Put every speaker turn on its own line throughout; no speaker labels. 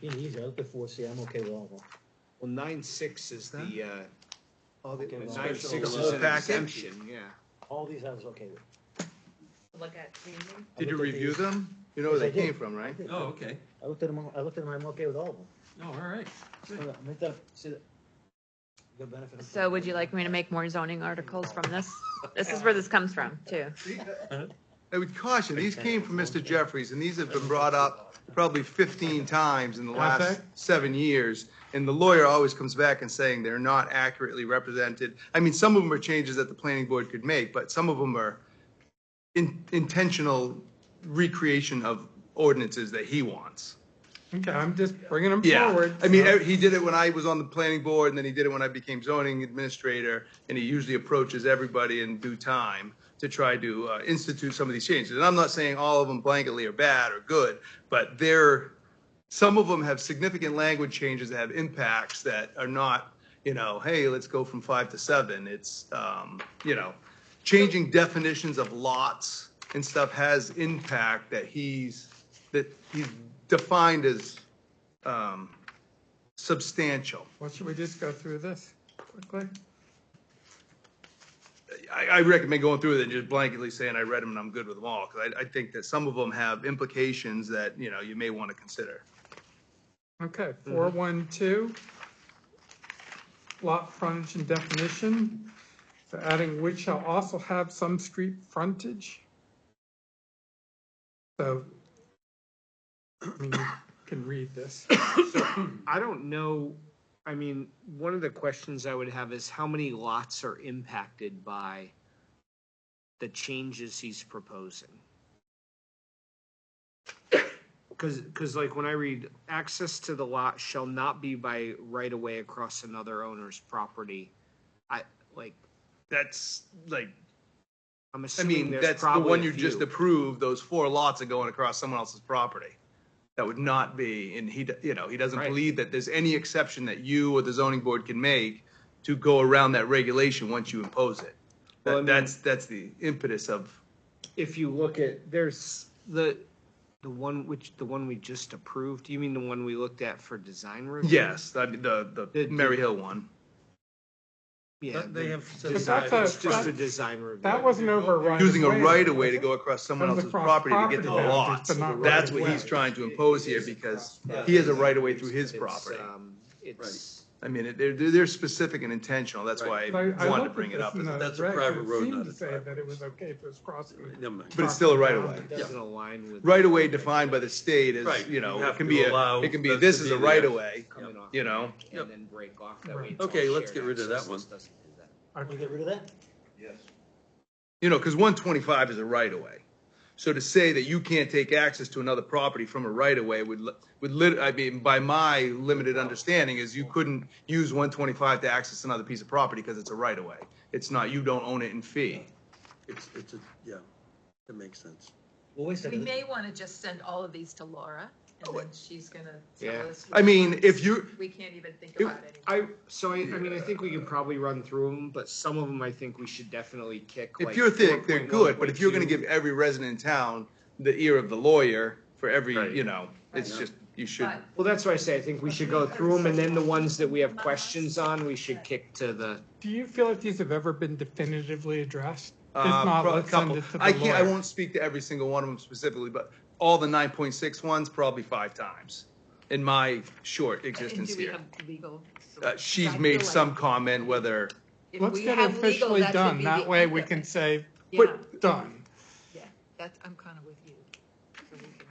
Being easy, I looked at four C, I'm okay with all of them.
Well, nine six is the, uh,
All the,
Okay, well,
nine
special
six
little
is an
packet?
exemption, yeah.
all these I was okay with.
Look at, mhm.
I
Did you
looked at
review
these-
them? You know where they
Yes, I did.
came from, right?
Oh, okay.
I looked at them, all- I looked at them, I'm okay with all of them.
Oh, all right.
Hold on, make that, see that. The benefit. of-
so would you like me to make more zoning articles from this? This is where this comes from, too.
I would caution, these came from Mr. Jeffries, and these have been brought up probably 15 times in the last
Okay.
seven years. And the lawyer always comes back and saying they're not accurately represented. I mean, some of them are changes that the planning board could make, but some of them are in- intentional recreation of ordinances that he wants.
Okay, I'm just bringing them
Yeah,
forward.
I mean, e- he did it when I was on the planning board, and then he did it when I became zoning administrator, and he usually approaches everybody in due time to try to uh, institute some of these changes. And I'm not saying all of them blanketly are bad or good, but they're, some of them have significant language changes that have impacts that are not, you know, hey, let's go from five to seven. It's, um, you know, changing definitions of lots and stuff has impact that he's, that he's defined as um, substantial.
Well, should we just go through this quickly?
I, I recommend going through it and just blanketly saying I read them and I'm good with them all, because I, I think that some of them have implications that, you know, you may want to consider.
Okay,
Mm-hmm.
four, one, two. Lot frontage and definition, so adding which shall also have some street frontage. So, I mean, you can read this.
I don't know, I mean, one of the questions I would have is how many lots are impacted by the changes he's proposing? Cause, cause like when I read, access to the lot shall not be by right of way across another owner's property. I, like,
That's like,
I'm
I
assuming
mean,
there's
that's the one
probably a
you just
few.
approved, those four lots are going across someone else's property. That would not be, and he, d- you know, he doesn't
Right.
believe that there's any exception that you or the zoning board can make to go around that regulation once you impose it.
Well, I mean-
That- That's, that's the impetus of
If you look at, there's the, the one which, the one we just approved, you mean the one we looked at for design review?
Yes, I mean, the, the
The-
Mary Hill one.
Yeah.
They
the-
have. said
But
Design,
that's a-
it's just a
that-
design review.
That wasn't over a right.
Using a
way,
right of way
was
to
it?
go across someone
That was
else's
across
property to get to the
property boundaries,
lots.
but not
That's
right
what
of
he's
way.
trying to impose here because he has a right of way through his
It's,
property.
uh,
um, It's,
I mean, it- they're, they're specific and intentional. That's why I
So I-
wanted
I looked
to
at
bring it
this
up.
in
as-
the
That's a
regs,
private
it
road,
seemed
not
to
a
say
driveway.
that it was okay if it was crossing.
Never mind.
But it's still a right of way.
it doesn't align with.
Right of way defined by the state is,
Right,
you
you
know,
have
it can
to
be, a
allow
it can be,
that
this
to
is
be
a right
there.
of way,
coming off
you know?
Yep.
And then break off that
Right.
way. it's all
Okay, let's
shared
get rid of that
access.
one.
This doesn't do that.
We get rid of that?
You know, because one twenty-five is a right of way. So to say that you can't take access to another property from a right of way would, li- would lit, I mean, by my limited understanding is you couldn't use one twenty-five to access another piece of property because it's a right of way. It's not, you don't own it in fee.
It's, it's, a yeah, that makes sense.
Well, wait a
We
second.
may want to just send all of these to Laura, and then she's gonna
Yeah.
tell us.
I mean, if you,
We can't even think
It-
about it.
I, so I, I mean, I think we can probably run through them, but some of them I think we should definitely kick.
if
like
you're thick, they're
4.1,
good, but if you're gonna
4.2.
give every resident in town the ear of the lawyer for every, you know, it's
Right.
just, you should.
But-
Well, that's why I say I think we should go through them and then the ones that we have questions on, we should kick to the.
Do you feel like these have ever been definitively addressed? If
Uh,
not,
pro- a
let's send
couple.
it to the
I can't, I
lawyer.
won't speak to every single one of them specifically, but all the 9.6 ones, probably five times in my short
And
existence
do we
here.
have legal?
Uh,
I
she's
feel
made
like
some comment whether,
if
Let's
we
get it
have legal,
officially
that should
done.
be
That
the
way
end
we
of
can
it.
say,
Yeah,
done.
yeah, that's, I'm kind of with you. So we can-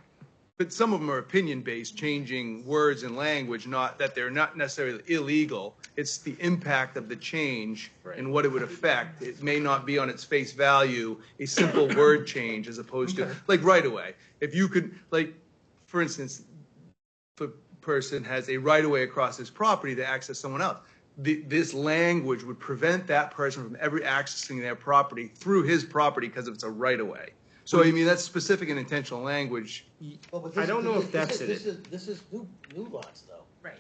but some of them are opinion-based, changing words and language, not, that they're not necessarily illegal. It's the impact of the change and what it would affect. It may not be on its face value, a simple word change as opposed to, like, right away. If you could, like, for instance, the person has a right of way across his property to access someone else. The, this language would prevent that person from ever accessing their property through his property because it's a right of way. So I mean, that's specific and intentional language.
Well, but
I
this-
don't know
this-
if that's
this is- This is, this is new, new lots though.
Right.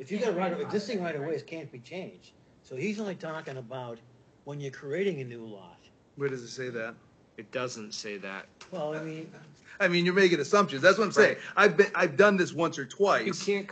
If you got right, of- existing right of ways can't be changed. So he's only talking about when you're creating a new lot.
Where does it say that?
It doesn't say that.
Well, I mean,
I mean, you're making assumptions. That's what I'm saying. I've been, I've done this once or twice.
You can't